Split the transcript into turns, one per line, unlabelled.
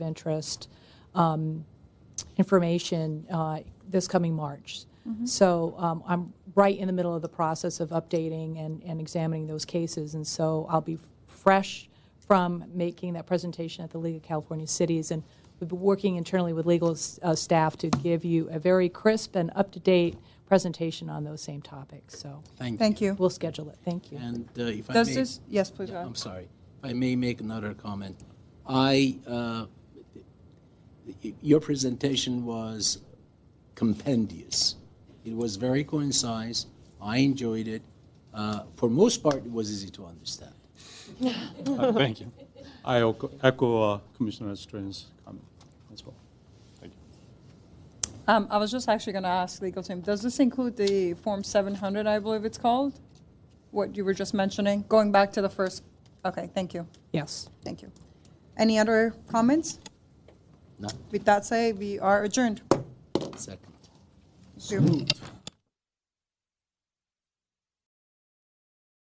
interest um, information uh, this coming March. So um, I'm right in the middle of the process of updating and and examining those cases, and so I'll be fresh from making that presentation at the League of California Cities, and we've been working internally with legal s- uh, staff to give you a very crisp and up-to-date presentation on those same topics, so
Thank you.
we'll schedule it. Thank you.
And uh, if I
Does
may-
this, yes, please, go
Yeah, I'm
ahead.
sorry. If I may make another comment. I, uh, y- your presentation was compendious. It was very concise. I enjoyed it. Uh, For most part, it was easy to understand.
Uh, Thank you. I echo- echo uh, Commissioner Strange's comment as well. Thank you.
Um, I was just actually going to ask legal team, does this include the Form 700, I believe it's called? What you were just mentioning, going back to the first, okay, thank you,
Yes.
thank you. Any other comments?
No?
With that said, we are adjourned.
Second.
Thank you.